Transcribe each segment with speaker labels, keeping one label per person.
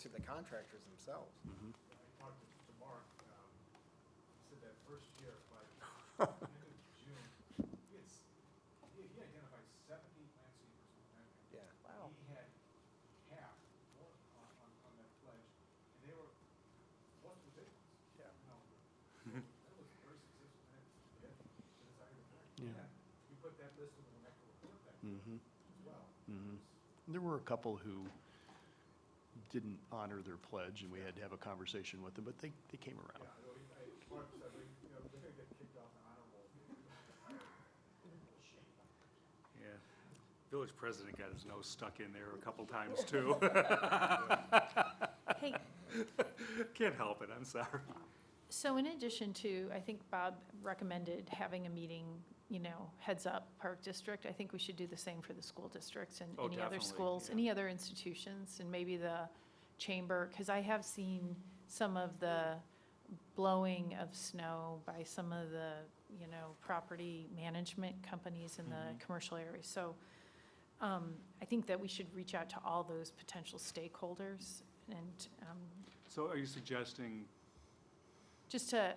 Speaker 1: to the contractors themselves.
Speaker 2: Mm-hmm.
Speaker 3: I talked to- to Mark, um, he said that first year, by end of June, he had, s- he he identified seventy landscapers in Connecticut.
Speaker 1: Yeah,
Speaker 4: Wow.
Speaker 3: He had half on, on, on that pledge, and they were, most were big ones.
Speaker 1: Yeah.
Speaker 3: You know, That was very successful, and it, it desired effect.
Speaker 2: Yeah.
Speaker 3: We put that list in the Echo report back
Speaker 2: Mm-hmm.
Speaker 3: as well.
Speaker 2: Mhm. There were a couple who didn't honor their pledge, and we had to have a conversation with them, but they, they came
Speaker 3: Yeah,
Speaker 2: around.
Speaker 3: I know, he- I, Mark said, we- you know, they're gonna get kicked off the honor roll.
Speaker 5: Yeah. Village president got his nose stuck in there a couple times too.
Speaker 4: Hey,
Speaker 5: Can't help it, I'm sorry.
Speaker 4: so in addition to, I think Bob recommended having a meeting, you know, heads up Park District. I think we should do the same for the school districts and
Speaker 5: Oh,
Speaker 4: any other
Speaker 5: definitely,
Speaker 4: schools,
Speaker 5: yeah.
Speaker 4: any other institutions, and maybe the chamber, because I have seen some of the blowing of snow by some of the, you know, property management companies in
Speaker 5: Mm-hmm.
Speaker 4: the commercial area. So um, I think that we should reach out to all those potential stakeholders and um,
Speaker 5: So are you suggesting
Speaker 4: Just to,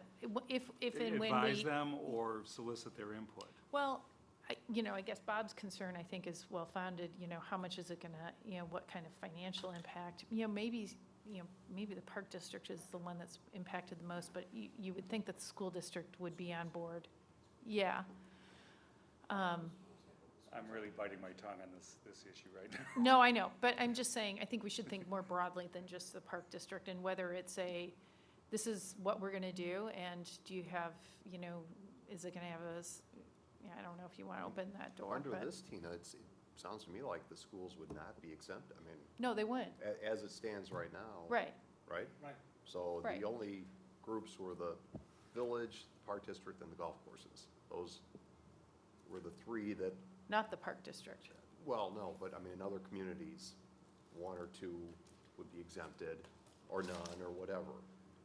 Speaker 4: if, if and when
Speaker 5: advise
Speaker 4: we,
Speaker 5: them or solicit their input?
Speaker 4: well, I, you know, I guess Bob's concern, I think, is well-founded, you know, how much is it gonna, you know, what kind of financial impact? You know, maybe, you know, maybe the park district is the one that's impacted the most, but you, you would think that the school district would be on board. Yeah. Um,
Speaker 5: I'm really biting my tongue on this, this issue right now.
Speaker 4: No, I know, but I'm just saying, I think we should think more broadly than just the park district and whether it's a, this is what we're gonna do, and do you have, you know, is it gonna have a, s- yeah, I don't know if you wanna open that door,
Speaker 6: Under
Speaker 4: but,
Speaker 6: this, Tina, it's, it sounds to me like the schools would not be exempt, I mean,
Speaker 4: no, they wouldn't,
Speaker 6: a- as it stands right now.
Speaker 4: right,
Speaker 6: Right?
Speaker 3: Right.
Speaker 6: So
Speaker 4: Right.
Speaker 6: the only groups were the village, the park district, and the golf courses. Those were the three that,
Speaker 4: not the park district,
Speaker 6: well, no, but I mean, in other communities, one or two would be exempted, or none, or whatever.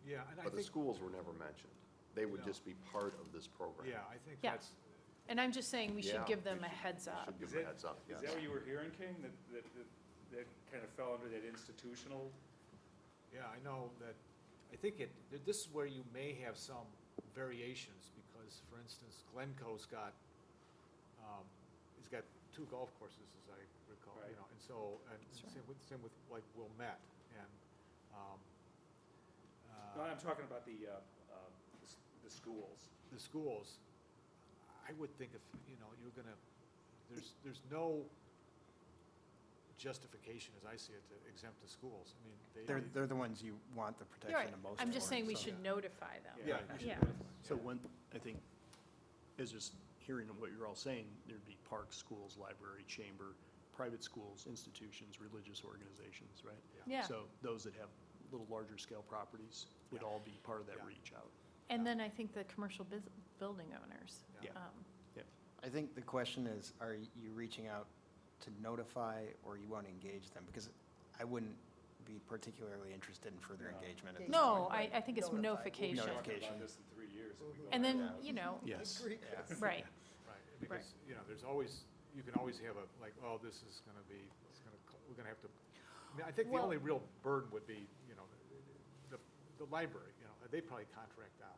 Speaker 3: Yeah, and
Speaker 6: But the schools were never mentioned. They would just be part of this program.
Speaker 3: I think
Speaker 4: Yeah. that's- and I'm just saying we should
Speaker 6: Yeah,
Speaker 4: give them
Speaker 6: we
Speaker 4: a
Speaker 6: should-
Speaker 4: heads
Speaker 6: we
Speaker 4: up.
Speaker 6: Should give them a heads up, yes.
Speaker 5: Is that what you were hearing, King? That, that, that- that kind of fell under that institutional?
Speaker 3: Yeah, I know that, I think it, th- this is where you may have some variations, because, for instance, Glencoe's got, um, he's got two golf courses, as I recall, you
Speaker 5: Right.
Speaker 3: know, and so, and
Speaker 4: That's right.
Speaker 3: same with, same with, like, Wilmette, and, um,
Speaker 5: No,
Speaker 3: uh,
Speaker 5: I'm talking about the, uh, uh, the s- the schools.
Speaker 3: the schools, I would think if, you know, you're gonna, there's, there's no justification, as I see it, to exempt the schools, I mean, they.
Speaker 1: they're, they're the ones you want the
Speaker 4: You're right.
Speaker 1: protection of most.
Speaker 4: I'm just
Speaker 1: for,
Speaker 4: saying we
Speaker 1: so-
Speaker 4: should notify them.
Speaker 3: Yeah. you should
Speaker 4: Yeah.
Speaker 3: notify them,
Speaker 2: So
Speaker 3: yeah.
Speaker 2: one, I think, is just hearing what you're all saying, there'd be parks, schools, library, chamber, private schools, institutions, religious organizations, right?
Speaker 4: Yeah,
Speaker 2: So those that have little larger scale properties would all be part of that
Speaker 3: Yeah.
Speaker 2: reach out.
Speaker 4: and then I think the commercial bus building owners.
Speaker 2: Yeah.
Speaker 4: um,
Speaker 1: I think the question is, are you reaching out to notify or you want to engage them? Because I wouldn't be particularly interested in further
Speaker 5: No.
Speaker 1: engagement at this point.
Speaker 4: No, I, I think it's
Speaker 1: Notify.
Speaker 4: notification,
Speaker 5: We'll be talking
Speaker 1: Notification.
Speaker 5: about this in three years. if we go
Speaker 4: and then,
Speaker 5: back.
Speaker 4: you know,
Speaker 2: Yes.
Speaker 1: Yeah.
Speaker 4: right,
Speaker 3: Right, because, you know, there's always, you can always have a, like, oh, this is gonna be, it's gonna, co- we're gonna have to, I mean, I think the
Speaker 4: Well-
Speaker 3: only real burden would be, you know, the, the library, you know, they probably contract out.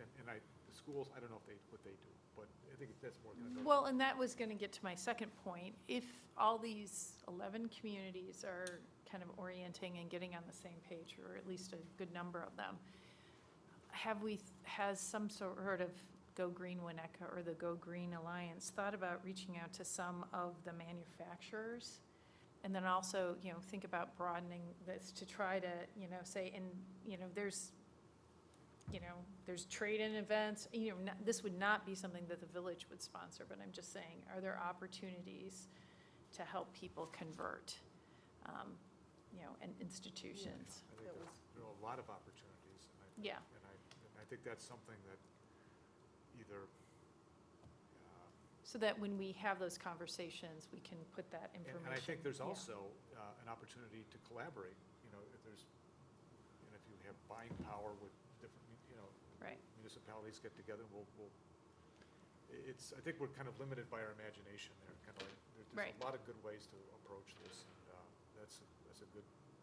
Speaker 3: And, and I, the schools, I don't know if they, what they do, but I think that's more gonna go.
Speaker 4: Well, and that was going to get to my second point. If all these 11 communities are kind of orienting and getting on the same page, or at least a good number of them, have we, has some sort of Go Green Winnetka or the Go Green Alliance thought about reaching out to some of the manufacturers? And then also, you know, think about broadening this to try to, you know, say, and, you know, there's, you know, there's trade-in events, you know, not- this would not be something that the village would sponsor, but I'm just saying, are there opportunities to help people convert, um, you know, and institutions?
Speaker 3: I think there's- there are a lot of opportunities, and I,
Speaker 4: Yeah,
Speaker 3: and I, and I think that's something that either, uh,
Speaker 4: so that when we have those conversations, we can put that
Speaker 3: And-
Speaker 4: information.
Speaker 3: And I think there's
Speaker 4: yeah.
Speaker 3: also uh, an opportunity to collaborate, you know, if there's, and if you have buying power with different, mu- you know,
Speaker 4: Right,
Speaker 3: municipalities get together, we'll, we'll, i- it's, I think we're kind of limited by our imagination there, kind of like, there- there's
Speaker 4: Right.
Speaker 3: a lot of good ways to approach this, and uh, that's, a- that's a good,